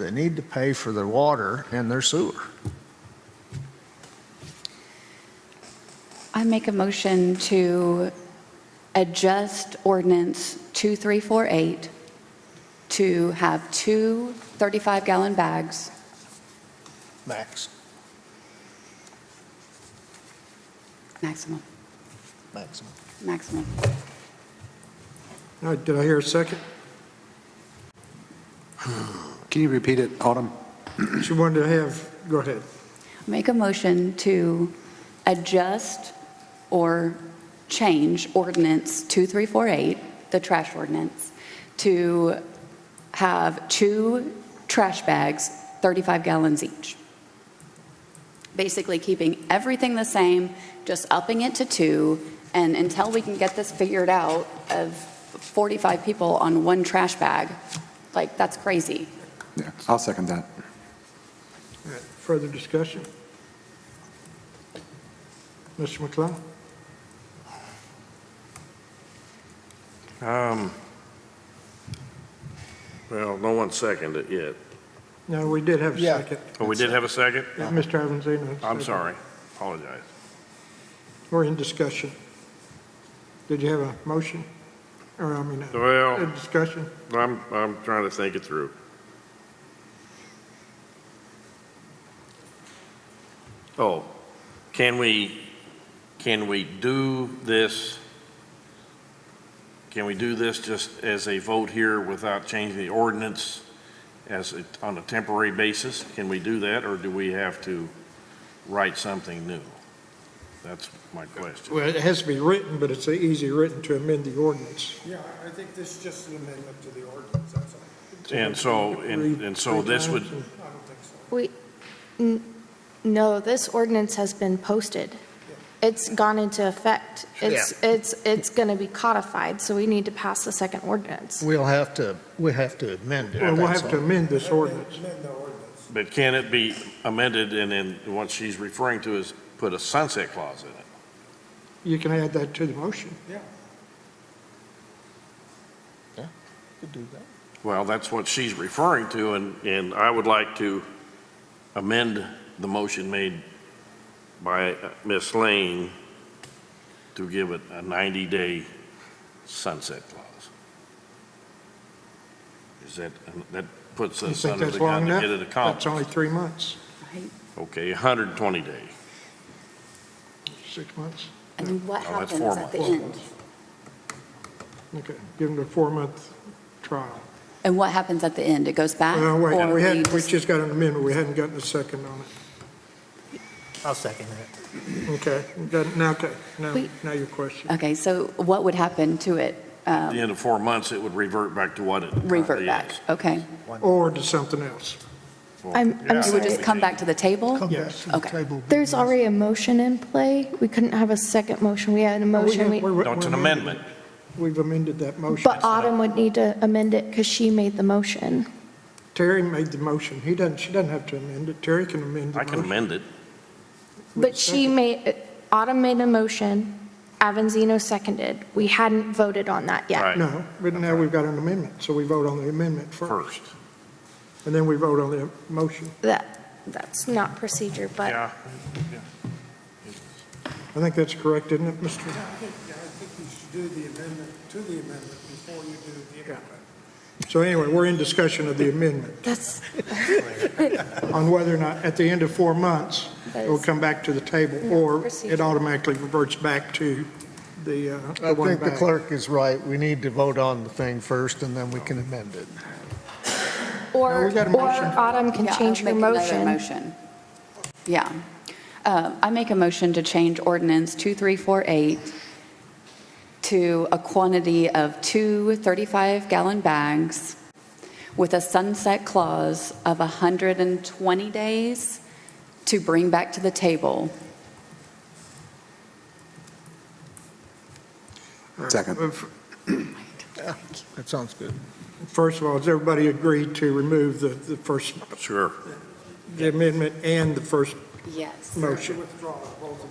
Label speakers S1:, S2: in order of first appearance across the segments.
S1: They need to pay for their water and their sewer.
S2: I make a motion to adjust ordinance 2348 to have two 35-gallon bags.
S1: Max,
S2: Maximum,
S1: maximum.
S2: maximum.
S3: All right, did I hear a second?
S4: Can you repeat it, Autumn?
S3: She wanted to have, go ahead.
S2: Make a motion to adjust or change ordinance 2348, the trash ordinance, to have two trash bags, 35 gallons each. Basically keeping everything the same, just upping it to two, and until we can get this figured out of 45 people on one trash bag, like, that's crazy.
S4: Yeah, I'll second that.
S3: All right, Further discussion? Mr. McClung?
S5: Um, well, no one seconded it yet.
S3: No, we did have a
S1: Yeah.
S3: second.
S5: Oh, we did have a second?
S3: Yeah, Mr. Evans, I know.
S5: I'm sorry, apologize.
S3: We're in discussion. Did you have a motion? Or, I mean, a- a
S5: Well,
S3: discussion?
S5: I'm, I'm trying to think it through. Oh, can we, can we do this? Can we do this just as a vote here without changing the ordinance as, a- on a temporary basis? Can we do that, or do we have to write something new? That's my question.
S3: Well, it has to be written, but it's easy written to amend the ordinance.
S6: Yeah, I think this is just an amendment to the ordinance, that's all.
S5: And so, and and so this would,
S6: I don't think so.
S7: No, this ordinance has been posted. It's gone into effect. It's, it's, it's going to be codified, so we need to pass the second ordinance.
S1: We'll have to, we have to amend it.
S3: Well, we'll
S1: that's
S3: have to
S1: all.
S3: amend this ordinance.
S6: Amend the ordinance.
S5: But can it be amended and then what she's referring to is put a sunset clause in it?
S3: You can add that to the motion.
S1: Could do that.
S5: Well, that's what she's referring to and, and I would like to amend the motion made by uh, Ms. Lane to give it a 90-day sunset clause. Is that, that puts
S3: You
S5: us
S3: think
S5: under
S3: that's
S5: the
S3: long
S5: gun to
S3: enough?
S5: get it
S3: That's only
S5: accomplished?
S3: three months,
S5: Okay, 120 days.
S3: six months.
S2: And then what
S5: Well, that's
S2: happens
S5: four
S2: at the
S5: months.
S2: end?
S3: Okay, give them a four-month trial.
S2: And what happens at the end? It goes back?
S3: Well, wait,
S2: or
S3: we hadn't, we
S2: just-
S3: just got an amendment, we hadn't gotten a second on it.
S8: I'll second that.
S3: Okay, got- now, okay, now,
S2: We-
S3: now your question.
S2: Okay, so what would happen to it?
S5: At the end of four months, it would revert back to what it currently is.
S2: Revert back? Okay.
S3: Or to something else.
S5: Well,
S7: I'm- I'm
S5: yeah,
S2: It would just come back to the table?
S1: Come back
S3: Yes.
S1: to the
S2: Okay.
S1: table.
S7: There's already a motion in play. We couldn't have a second motion. We had a motion.
S3: We-
S7: We-
S3: we-
S5: No, it's an
S3: we amended-
S5: amendment.
S3: We've amended that motion.
S7: But Autumn would need to amend it because she made the motion.
S3: Terry made the motion, he doesn't, she doesn't have to amend it, Terry can amend the
S5: I
S3: motion.
S5: can amend it.
S7: But she made, Autumn made a motion, Avanzino seconded. We hadn't voted on that yet.
S5: Right.
S3: No, but now we've got an amendment, so we vote on the amendment first,
S5: first.
S3: and then we vote on the motion.
S7: That, that's not procedure, but.
S3: I think that's correct, isn't it, Mr.?
S6: Yeah, I think, yeah, I think you should do the amendment to the amendment before you do the amendment.
S3: So anyway, we're in discussion of the amendment,
S7: That's,
S3: on whether or not, at the end of four months,
S7: that
S3: it'll
S7: is,
S3: come back to the table,
S7: Yeah,
S3: or it
S7: procedure.
S3: automatically reverts back to the, uh,
S1: I
S3: the one
S1: think the
S3: back.
S1: clerk is right. We need to vote on the thing first and then we can amend it.
S3: No,
S7: or,
S3: we got a
S7: or
S3: motion.
S7: Autumn can
S2: Yeah, I'll
S7: change her
S2: make another
S7: motion.
S2: motion. Yeah. Uh, I make a motion to change ordinance 2348 to a quantity of two 35-gallon bags with a sunset clause of 120 days to bring back to the table.
S4: Second.
S1: That sounds good.
S3: First of all, has everybody agreed to remove the, the first,
S5: Sure.
S3: the amendment and the first
S2: Yes.
S3: motion?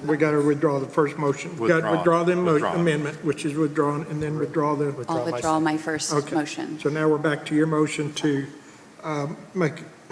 S3: We got to withdraw the first motion. Got to
S5: Withdraw.
S3: withdraw the mo-
S5: Withdraw.
S3: amendment, which is withdrawn, and then withdraw the,
S2: I'll withdraw my first
S3: Okay.
S2: motion.
S3: so now we're back to your motion to um, make,